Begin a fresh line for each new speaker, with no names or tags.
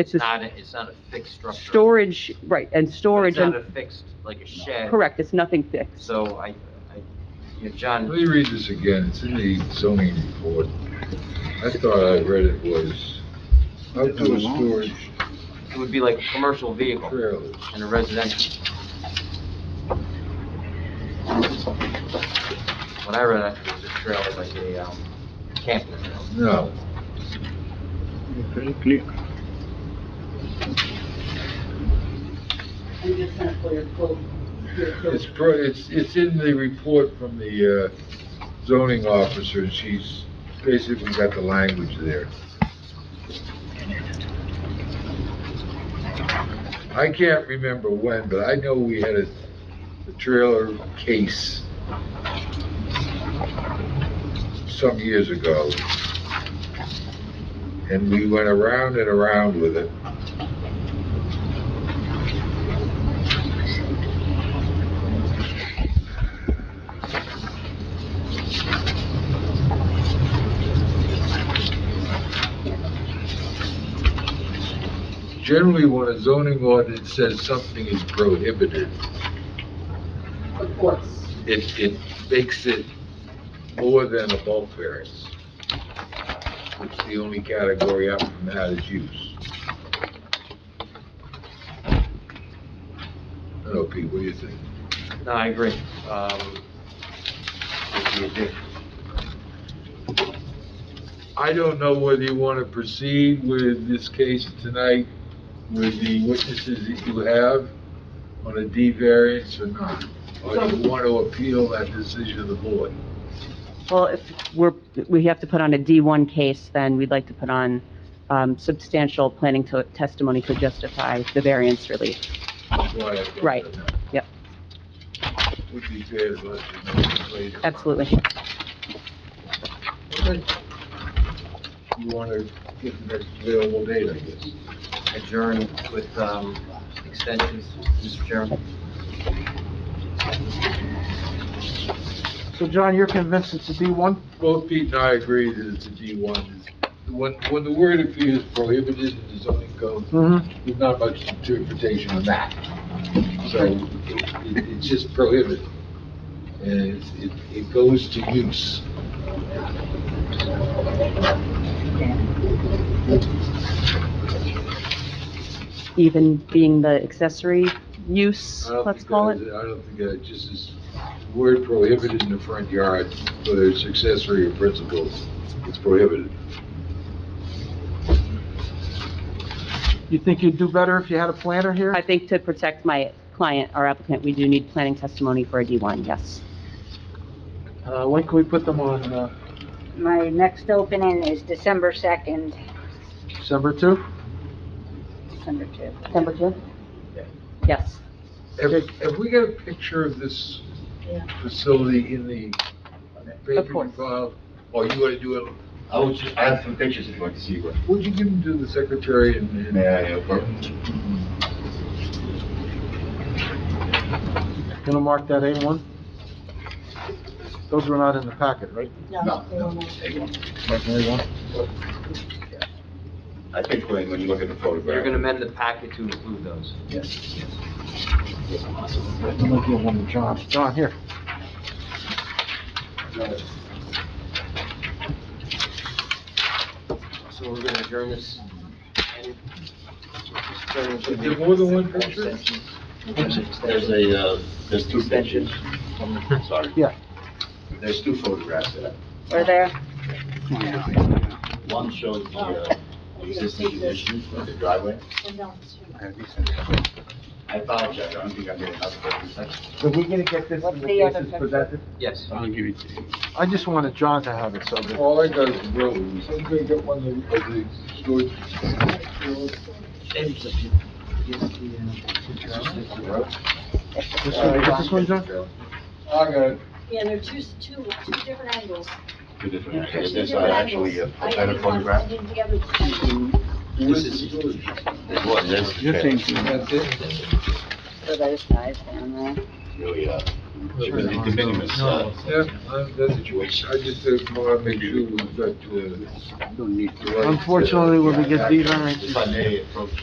It's just
not, a- it's not a fixed structure.
storage, right, and storage,
It's not
and,
a fixed, like a shed.
correct, it's nothing fixed.
So I, I, you know, John.
Let me read this again, it's in the zoning report. I thought I read it was outdoor storage
It would be like a commercial vehicle
trailers.
and a residential. When I read it, it was a trailer, like a, um, camping trailer.
No,
Very clear.
I'm just gonna pull your quote. your quote.
it's, pro- it's, it's in the report from the uh, zoning officer, and she's basically got the language there. I can't remember when, but I know we had a, a trailer case some years ago. And we went around and around with it. Generally, when a zoning ordinance says something is prohibited,
Of course.
it, it makes it more than a bulk variance, which the only category up from that is use. I don't know, Pete, what do you think?
No, I agree. Um, what do you do?
I don't know whether you want to proceed with this case tonight with the witnesses that you have on a D variance or not, or do you want to appeal that decision of the board?
Well, if we're, we have to put on a D1 case, then we'd like to put on um, substantial planning to- testimony to justify the variance relief.
That's why I brought that
Right.
up.
Yep.
Would be fair to let you know this later.
Absolutely.
Okay. You want to get the next available date, I guess.
Adjourn with, um, extensions, Mr. Chairman?
So John, you're convinced it's a D1?
Both Pete and I agree that it's a D1. When, when the word appears prohibited in the zoning code,
Mm-hmm.
there's not much interpretation on that. So it, it's just prohibited. And it's- it, it goes to use.
Even being the accessory use,
I don't
let's
think
call
that
it.
is- I don't think that, just is word prohibited in the front yard, whether it's accessory or principal, it's prohibited.
You think you'd do better if you had a planner here?
I think to protect my client, our applicant, we do need planning testimony for a D1, yes.
Uh, when can we put them on, uh,
My next opening is December 2nd,
December 2?
December 2.
December 2?
Yeah.
Yes.
Have, have we got a picture of this
Yeah.
facility in the paper you
course.
filed? Or you wanna do it,
I was just, I have some pictures if you'd like to see what.
would you give them to the secretary and? and-
May I, uh, borrow?
Gonna mark that A1? Those were not in the packet, right?
No, no, take one. I think when, when you look at the photograph.
You're gonna amend the packet to include those.
I'm gonna give one to John. John, here.
So we're gonna adjourn this.
Is there more than one picture?
There's a, uh, there's two pictures. Sorry.
Yeah.
There's two photographs there.
We're there?
One shows the, uh, existing condition of the driveway. I apologize, I don't think I made enough of it.
Are we gonna get this
What's the other picture?
Yes.
I just wanted John to have it, so that
All I got is rows. I'm gonna get one of the, of the storage.
This one, is this one, John?
I got it.
Yeah, there are two, two, two different angles.
Two different,
Two
there's
different
actually a
angles. I
better
didn't want
photograph.
them together at the same time.
This is.
There's one, there's.
That's it?
For those guys down there.
really a, it was a de minimis, uh,
Yeah, uh, that's, I just didn't want to make sure uh, we got to the
Unfortunately, when we get these variances,
if I may approach